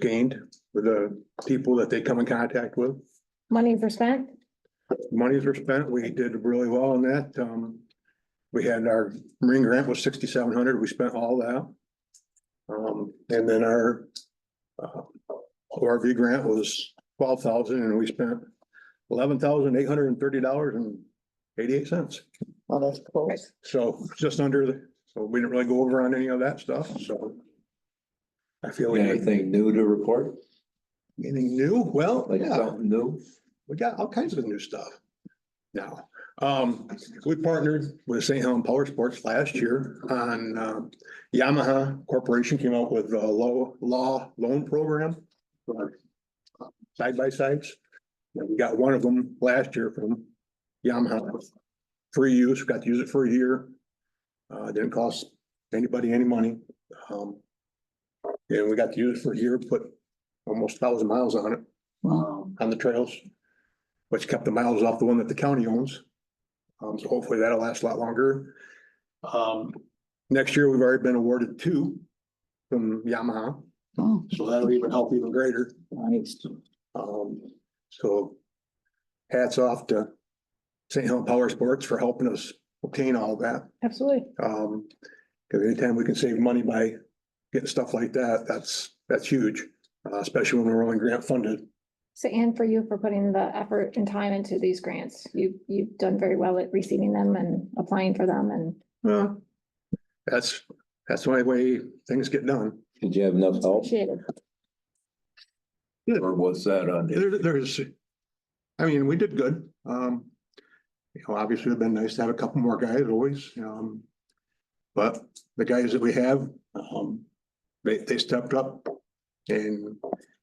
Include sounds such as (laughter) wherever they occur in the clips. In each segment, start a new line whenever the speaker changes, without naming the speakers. gained for the people that they come in contact with.
Money for spent?
Monies were spent. We did really well on that. Um, we had our Marine grant was sixty-seven hundred. We spent all that. Um, and then our uh, ORV grant was twelve thousand and we spent eleven thousand eight hundred and thirty dollars and eighty-eight cents.
Well, that's close.
So just under the, so we didn't really go over on any of that stuff, so. I feel we did
Anything new to report?
anything new. Well,
Like
yeah.
something new?
we got all kinds of new stuff now. Um, we partnered with St. Helen Power Sports last year on uh, Yamaha Corporation came out with a low law loan program. for Side by sides. And We got one of them last year from Yamaha. Free use, got to use it for a year. Uh, didn't cost anybody any money. Um. And we got to use it for a year, put almost thousand miles on it,
Wow.
um, on the trails which kept the miles off the one that the county owns. Um, so hopefully that'll last a lot longer. Um, next year, we've already been awarded two from Yamaha,
Oh,
so that'll even help even greater.
nice.
Um, so hats off to St. Helen Power Sports for helping us obtain all that.
Absolutely.
Um, cause anytime we can save money by getting stuff like that, that's, that's huge, uh, especially when we're only grant funded.
So Anne, for you for putting the effort and time into these grants, you, you've done very well at receiving them and applying for them and
Well, that's, that's the only way things get done.
Did you have enough
it's
help?
appreciated.
Or was that on? you?
There, there's, I mean, we did good. Um, you know, obviously it'd been nice to have a couple more guys always, um. But the guys that we have, um, they, they stepped up. And,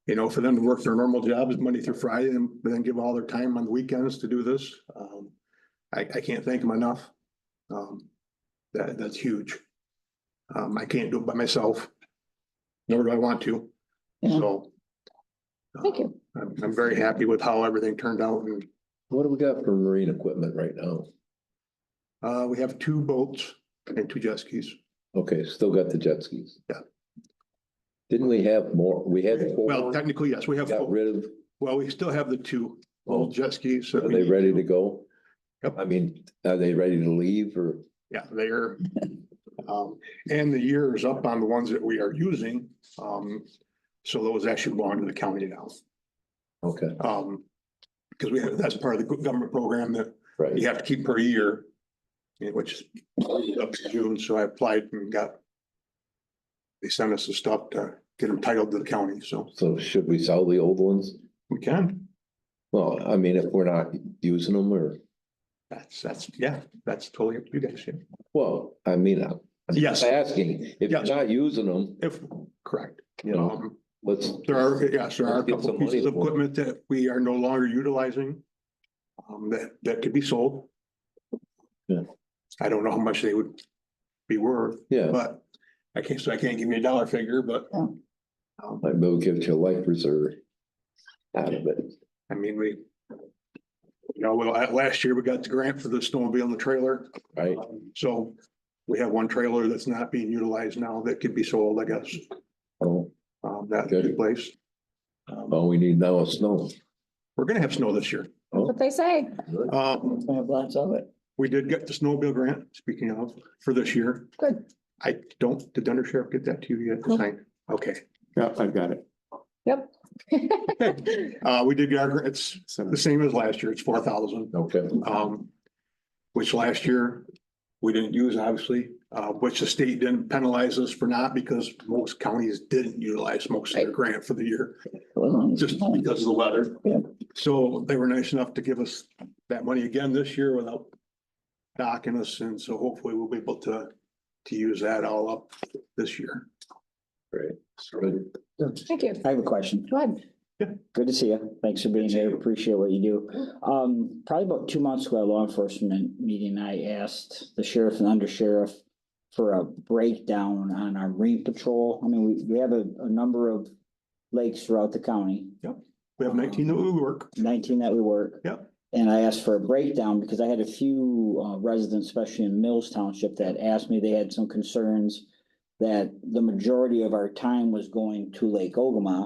you know, for them to work their normal jobs Monday through Friday and then give all their time on the weekends to do this, um, I, I can't thank them enough. Um, that, that's huge. Um, I can't do it by myself. Nor do I want to,
Yeah.
so. uh,
Thank you.
I'm, I'm very happy with how everything turned out and,
What do we got for marine equipment right now?
uh, we have two boats and two jet skis.
Okay, still got the jet skis.
Yeah.
Didn't we have more? We had
Well,
four,
technically, yes, we have,
got
four.
rid of,
well, we still have the two
well,
old jet skis. that
are
we
they
need.
ready to go?
Yep.
I mean, are they ready to leave or?
Yeah, they are. Um, and the year is up on the ones that we are using. Um, so those actually belong to the county now.
Okay,
Um, because we have, that's part of the government program that
right.
you have to keep per year. yeah, Which is up to June, so I applied and got. They sent us the stuff to get them titled to the county, so
So should we sell the old ones?
we can.
Well, I mean, if we're not using them or,
That's, that's, yeah, that's totally up to you guys. yeah.
well, I mean, I'm I'm
Yes.
just asking, if you're
Yes.
not using them,
If, correct.
you know,
Um,
let's.
there are, yes, there are a
Let's get
couple
some money
pieces of
for it.
equipment that we are no longer utilizing. Um, that, that could be sold.
Yeah.
I don't know how much they would be worth,
Yeah,
but I can't, so I can't give you a dollar figure, but.
Yeah.
Um,
Like they'll give you a life reserve out of it.
I mean, we. You know, well, at- last year we got the grant for the snowmobile and the trailer, Um,
Right,
so we have one trailer that's not being utilized now that could be sold, I guess,
oh,
um, that could be
Good.
placed. Um,
all we need now is snow.
we're gonna have snow this year.
Oh,
What they say,
good.
Um,
We have lots of it.
we did get the snowmobile grant, speaking of, for this year.
good.
I don't, did the under sheriff get that to you yet? to
Nope.
sign? Okay. Yeah, I've got it.
Yep. (laughs)
Uh, we did get our, gra- it's the same as last year, it's four thousand.
Okay,
Um, which last year we didn't use, obviously, uh, which the state didn't penalize us for not because most counties didn't utilize most of their grant for the year, just because of the weather.
Yeah.
So they were nice enough to give us that money again this year without docking us. And so hopefully we'll be able to, to use that all up this year.
great.
So
Good.
Thank you.
I have a question.
Go ahead.
Good to see you. Thanks for being here. Appreciate what you do. Um, probably about two months ago, at law enforcement meeting, I asked the sheriff and undersheriff for a breakdown on our marine patrol. I mean, we, we have a, a number of lakes throughout the county.
we have nineteen that we work.
nineteen that we work.
Yep.
And I asked for a breakdown because I had a few uh, residents, especially in Mills Township, that asked me, they had some concerns that the majority of our time was going to Lake Ogama.